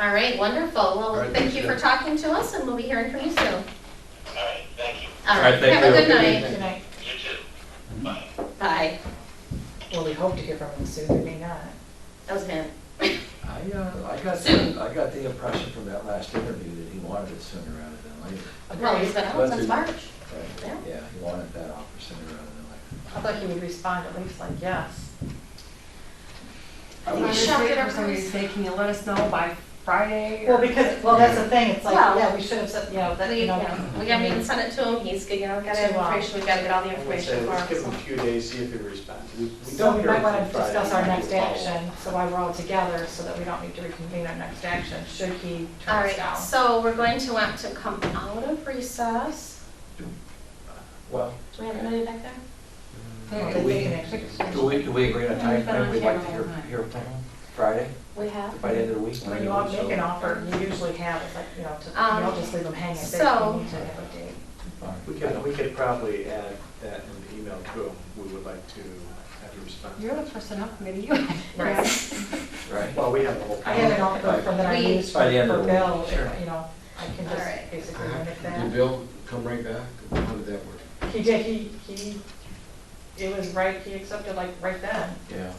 All right, wonderful. All Well, right, thank thanks, you for Jen. talking to us, and we'll be hearing from you soon. All right, thank you. All All right, right, thank have a you. good Good night. evening. Good night. You too. Bye. Bye. Well, we hope to hear from him soon, we may not. That was him. I, uh, I got, Soon. the- I got the impression from that last interview that he wanted it sooner rather than later. Well, he's been out That's since it. March. Yeah. Right? Yeah, he wanted that offer sooner rather than later. I thought he would respond at least like, yes. I If think you're we shocked waiting at for our somebody's price. say, can you let us know by Friday? Well, or- because, well, that's the thing, it's like, Well- yeah, we should have said, you know, that, We, you know. yeah, we gotta meet and send it to him. He's, you know, gotta have Too long. information. We gotta get all the I would say information for let's give him. them a few days, see if they respond. We- we So don't we hear might from want to Friday, discuss our we next follow up. action, so why we're all together, so that we don't need to reconvene our next action, should he All turn us right, down. so we're going to want to come out of recess. Well, Do we have anybody back there? They're- Do we- do we, do we agree on a Yeah, time we've been frame on we'd like to camera hear, all night. hear from him? Friday, We have. by the end of the week? When you all make an offer, you usually have, it's like, you know, to, you Um, don't just leave them hanging, they so- you need to have a date. Fine. We could, we could probably add that in the email to them, we would like to have you respond. You're the person up, maybe you. Right. Right. Well, we have the whole. I have an offer from that I We- used for By the end of for the week, Bill, sure. you know, I can All right. just basically mimic Did that. Uh-huh. Bill come right back? How did that work? He did, he, he, it was right, he accepted like right then. Yeah.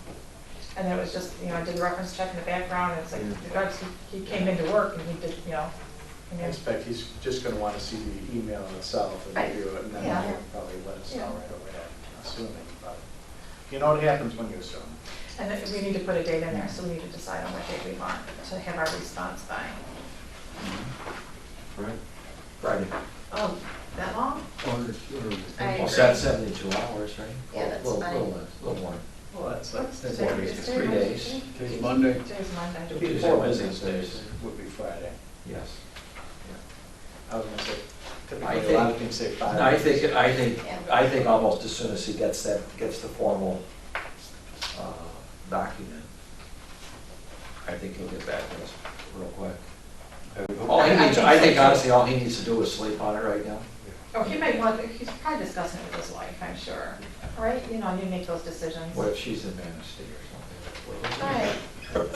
And then it was just, you know, I did the reference check in the background, and it's like, Yeah. the guys, he he came into work and he did, you know, I I mean, expect he's just gonna wanna see the email itself and Right. review it, and then Yeah. he'll probably let us know Yeah. right away, I'm assuming, but. You know what happens when you assume. and then we need to put a date in there, so we need to decide on what date we want to have our response by. Mm-hmm. Right? Friday. Oh, that long? I Or, Well, or, agree. that's seventy-two hours, right? Yeah, that's Little- fine. Little, little less, little more. Well, that's, that's. That's what what we- it is. Three days. today's Monday. Today's It'd Monday. be Tuesday, four Wednesday, business days, Thursday. would be Friday. Yes. I was gonna say, I typically, a lot of think- people say five. And I think, I think, Yeah. I think almost as soon as he gets that, gets the formal uh, document, I think he'll get back to us real quick. All he I- I needs, think I so, think too. honestly, all he needs to do is sleep on it right now. Oh, he may want, he's probably discussing it with his wife, I'm sure, right? You know, you make those decisions. What if she's in Manistee or something? All right.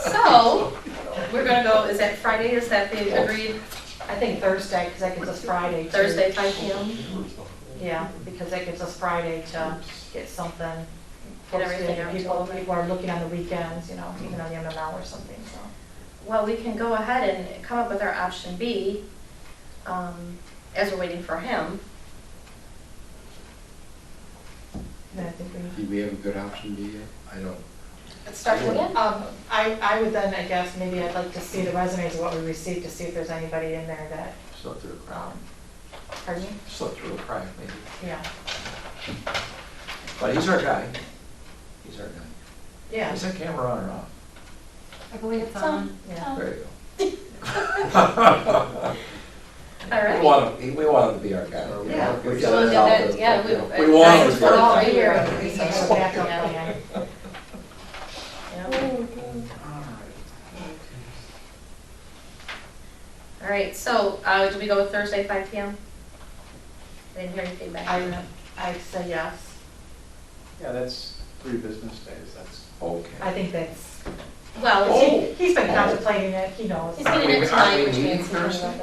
So, we're gonna go, is that Friday? Is that the agreed I think Thursday, because that gives us Friday. to- Thursday, five PM? Yeah, because that gives us Friday to get something. Get everything posted. out to all People, of them. people are looking on the weekends, you know, even on the MML or something, so. Well, we can go ahead and come up with our option B, um, as we're waiting for him. And I think we. Did we have a good option, do you? I don't. Let's start again. Um, I, I would then, I guess, maybe I'd like to see the resumes of what we received to see if there's anybody in there that, Slept through a crowd, um, pardon me? slept through a crack maybe. Yeah, But he's our guy. He's our guy. yeah, Is that camera on or off? I believe it's Uh. on. yeah. There you go. All We right. want him, we want him to be our guy. Yeah. We just So we'll do felt that, that, yeah, you know, we- We want him to be We're our all guy. Three here. years, so it's a backup plan. Yeah. All right, so, uh, do we go with Thursday, five PM? I didn't hear any feedback. I, I say yes. Yeah, that's three business days, that's. I Okay. think that's, Well, Oh. he- he's been contemplating it, he knows. he's Are getting it we- are tonight, we which meeting means. Thursday?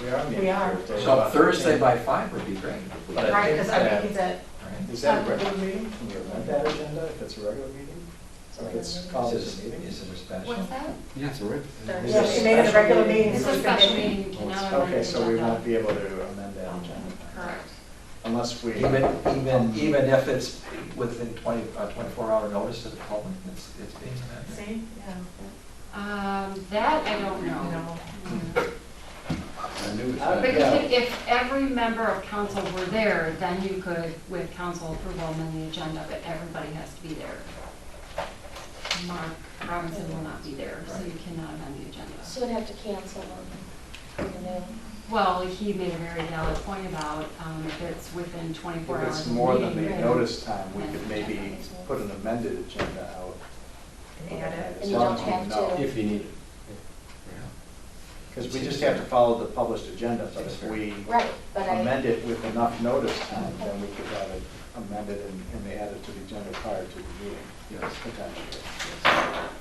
We are. meeting We are. Thursday. So Thursday by five would be great. if we- But I Right, because think I that- think that, Right. Is that a regular meeting? Can you amend that agenda if it's a regular meeting? So it's called Is as a it, meeting? is it a special? What's that? Yeah, it's all right. Thursday. yeah, she made it a regular meeting. It's so a she can special make- meeting, you cannot amend the Okay, so we agenda. won't be able to amend that agenda Correct. unless we. Even, even, even if it's within twenty, uh, twenty-four hour notice to the public, it's, it's being amended. See, yeah, Um, that I don't you know. know, Mm. I knew it. But Okay. you could- if every member of council were there, then you could, with council approval, amend the agenda, but everybody has to be there. Mark Robinson will not be there, so you cannot amend the agenda. She would have to cancel on the noon. Well, he made a very valid point about um, if it's within 24 If hours. it's of more than meeting, the then- notice time, we then could the agenda maybe is moved. put an amended agenda out. and add it. And you don't have to- If you need it. Because we just have to follow the published agenda, but if we Right, but I. amend it with enough notice time, then we could have it amended and and they added to the agenda prior to the meeting, Yes. potentially.